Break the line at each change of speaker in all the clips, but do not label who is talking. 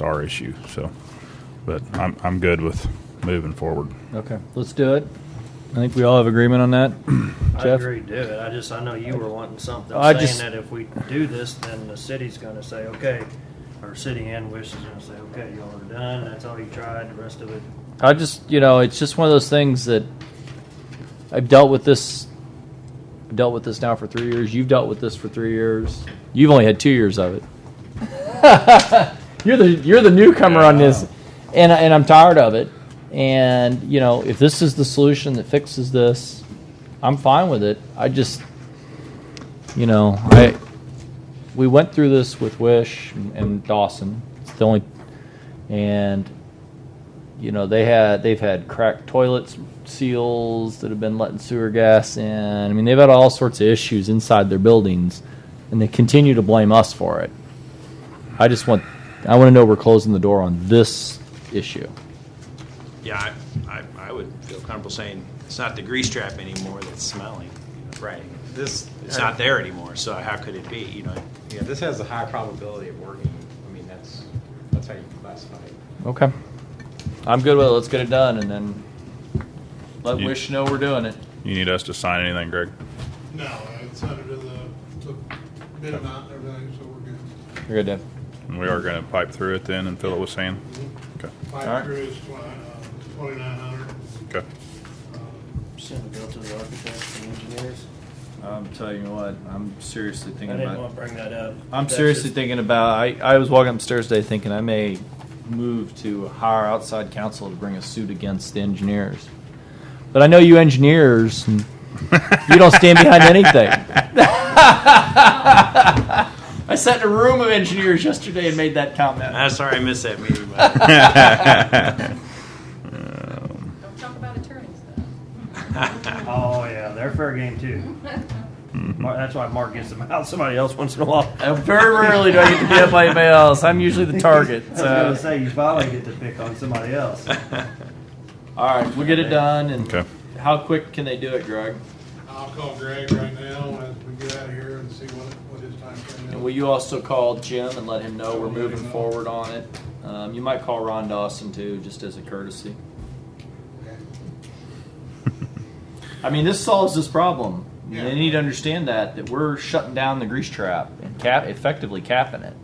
It's our issue. So, but I'm I'm good with moving forward.
Okay, let's do it. I think we all have agreement on that.
I
Jeff?
agree to do it. I just, I know you were wanting something,
I
saying
just-
that if we do this, then the city's gonna say, okay, or city and Wish is gonna say, okay, y'all are done, that's all you tried, the rest of it.
I just, you know, it's just one of those things that I've dealt with this. I've dealt with this now for three years. You've dealt with this for three years. You've only had two years of it. you're the you're the newcomer on this, and I- and I'm tired of it. And you know, if this is the solution that fixes this, I'm fine with it. I just, you know, I we went through this with Wish and, and Dawson. It's the only, and you know they had they've had cracked toilets seals that have been letting sewer gas in i mean they've had all sorts of issues inside their buildings and they continue to blame us for it i just want i want to know we're closing the door on this issue
Yeah, I, I, I would feel comfortable saying it's not the grease trap anymore that's smelling.
Right. This
It's not there anymore, so how could it be, you know?
Yeah, this has a high probability of working. I mean, that's that's how you classify it.
okay i'm good with it let's get it done and then let
You-
wish know we're doing it
You need us to sign anything, Greg?
No, it's under the, the bid amount and everything, so we're good.
you're good dave
And we are going to pipe through it then and fill it with sand. Okay.
Alright.
Five crews, uh, twenty-nine hundred. Uh,
Okay.
Send the bill to the architects and engineers.
I'm telling you what, I'm seriously
I
thinking
didn't
about.
wanna bring that up.
I'm
That's
seriously
just-
thinking about. I, I was walking upstairs today thinking I may move to hire outside counsel to bring a suit against the engineers.
but i know you engineers and you don't stand behind anything I sat in a room of engineers yesterday and made that comment.
I'm sorry I missed that meeting, but
Don't talk about attorneys, though.
Oh, yeah, they're fair game too.
Mm-hmm.
Mar- That's why Mark gets them out, somebody else once in a while.
Uh, very rarely do I get to be up by anybody else. I'm usually the target.
I was gonna
So.
say, you finally get to pick on somebody else.
All right, we'll get it done. And
Okay.
how quick can they do it, Greg?
I'll call Greg right now as we get out of here and see what, what his timeframe is.
And will you also call Jim and let him know we're moving forward on it? Um, you might call Ron Dawson too, just as a courtesy. I mean, this solves this problem. They need to understand that that we're shutting down the grease trap and cap effectively capping it.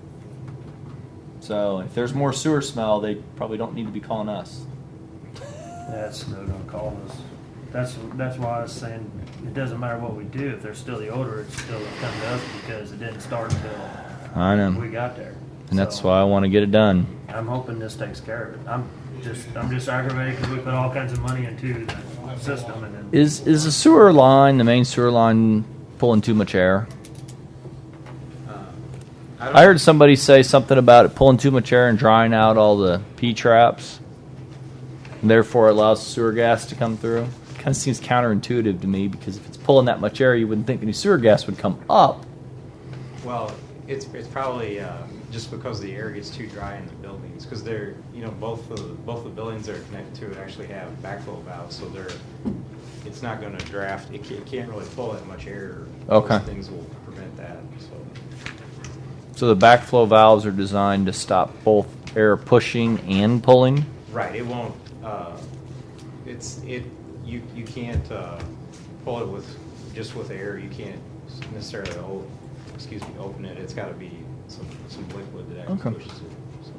So if there's more sewer smell, they probably don't need to be calling us.
That's no gonna call us. That's that's why I was saying it doesn't matter what we do if there's still the odor, it's still gonna come to us because it didn't start until
I
we got there.
and that's
So,
why I want to get it done.
I'm hoping this takes care of it. I'm just I'm just aggravated because we put all kinds of money into the system and then
Is is the sewer line the main sewer line pulling too much air?
Um,
I heard somebody say something about it pulling too much air and drying out all the P traps, and therefore allows sewer gas to come through. Kind of seems counterintuitive to me because if it's pulling that much air, you wouldn't think any sewer gas would come up.
Well, it's it's probably um, just because the air gets too dry in the buildings because they're you know both the both the buildings that are connected to it actually have backflow valves, so they're it's not going to draft. It can't, it can't really pull that much air.
Okay.
Those things will prevent that. So
So the backflow valves are designed to stop both air pushing and pulling.
right, it won't. Uh, it's it you you can't uh, pull it with just with air. You can't necessarily o- excuse me open it. It's got to be some some liquid that actually
Okay.
pushes it. So.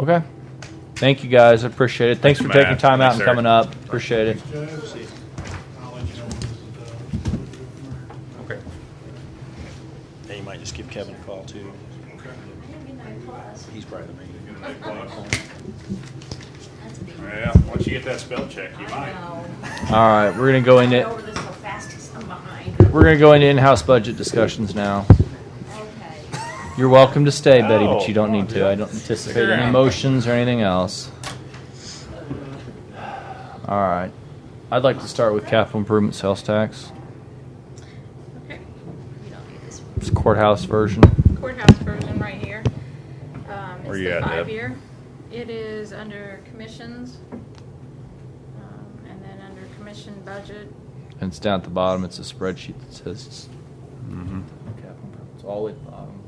Okay. Thank you guys. I appreciate it. Thanks for
Thanks,
taking
Matt.
time out
Thanks,
and
Eric.
coming up. Appreciate it.
Judge, I'll let you know when this is
Okay.
Then you might just give Kevin a call too.
done. Okay.
He's probably the main.
Yeah. Once you get that spell check, you
I know.
All right, we're gonna go
Get
into
over this so fast 'cause I'm behind.
we're gonna go into in-house budget discussions now.
Okay.
You're welcome to stay, Betty, but you don't
Oh,
need to. I don't anticipate any motions or anything else. All right, I'd like to start with capital improvement sales tax,
Okay, you don't need this
It's courthouse version.
courthouse version right here. Um,
Where
it's
you
the
at, Deb?
five-year. It is under commissions. Um, and then under commission budget,
And it's down at the bottom. It's a spreadsheet that says. Capital improvements, all the way at the bottom.